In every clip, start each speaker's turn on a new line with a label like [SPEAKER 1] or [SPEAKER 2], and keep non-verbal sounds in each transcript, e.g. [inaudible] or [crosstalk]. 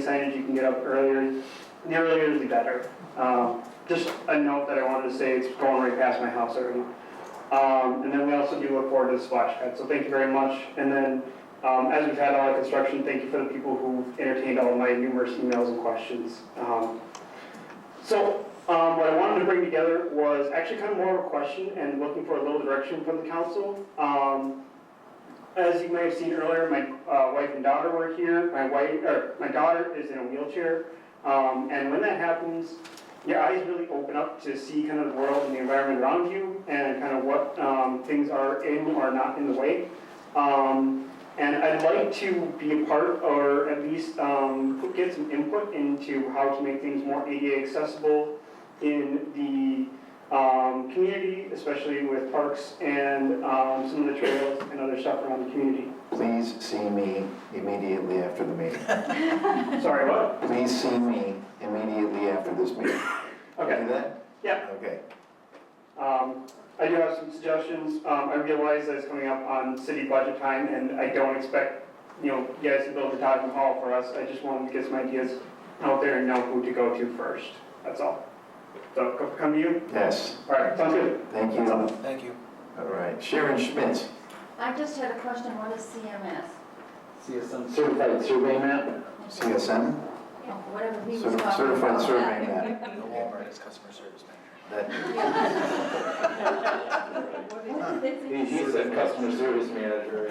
[SPEAKER 1] signage you can get up earlier, the earlier the better. Um, Just a note that I wanted to say, it's going right past my house already. Um, And then we also do look forward to the splash pad, so thank you very much. And then, um, as we've had all our construction, thank you for the people who entertained all of my numerous emails and questions. Um, So, um, what I wanted to bring together was actually kind of more of a question and looking for a little direction from the council. Um, as you may have seen earlier, my uh, wife and daughter were here. My wife, or my daughter is in a wheelchair. Um, and when that happens, your eyes really open up to see kind of the world and the environment around you and kind of what um, things are in or not in the way. Um, and I'd like to be a part or at least um, get some input into how to make things more ADA accessible in the um, community, especially with parks and um, some of the trails and other stuff around the community.
[SPEAKER 2] Please see me immediately after the meeting.
[SPEAKER 1] Sorry, what?
[SPEAKER 2] Please see me immediately after this meeting.
[SPEAKER 1] Okay,
[SPEAKER 2] Do that?
[SPEAKER 1] yeah.
[SPEAKER 2] Okay.
[SPEAKER 1] Um, I do have some suggestions. Um, I realize that it's coming up on city budget time, and I don't expect, you know, you guys to build the Taj Mahal for us. I just wanted to get some ideas out there and know who to go to first. That's all. So, co- come to you.
[SPEAKER 2] Yes,
[SPEAKER 1] All right, sounds good.
[SPEAKER 2] thank you. All
[SPEAKER 3] Thank you.
[SPEAKER 2] right, Sharon Schmitz.
[SPEAKER 4] I just had a question, what is CMS?
[SPEAKER 2] Certified survey map? CSM?
[SPEAKER 4] Oh, Whatever he was talking
[SPEAKER 2] Cer-
[SPEAKER 4] about.
[SPEAKER 2] Certified survey map.
[SPEAKER 4] [laughs]
[SPEAKER 3] The Walmart is customer service manager.
[SPEAKER 2] That-
[SPEAKER 4] survey.
[SPEAKER 5] He said customer service manager.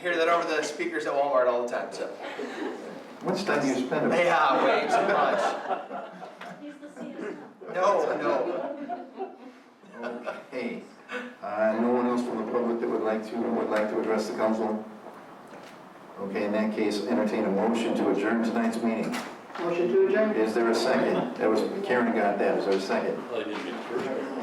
[SPEAKER 3] Hear that over the speakers at Walmart all the time, so. [laughs]
[SPEAKER 2] Much time you spend.
[SPEAKER 3] Yeah, way too much.
[SPEAKER 4] He's the CSM.
[SPEAKER 3] No, no.
[SPEAKER 2] Okay. Uh, no one else from the public that would like to, would like to address the council? Okay, in that case, entertain a motion to adjourn tonight's meeting.
[SPEAKER 1] Motion to adjourn?
[SPEAKER 2] Is there a second? That was, Karen got that, was there a second?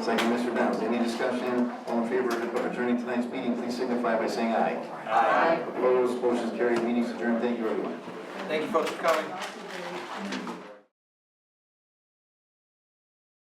[SPEAKER 2] Second, Mr. Downs, any discussion, all in favor of adjourning tonight's meeting, please signify by saying aye. Aye. Opposed, motion carried, meeting's adjourned, thank you everyone.
[SPEAKER 3] Thank you folks for coming.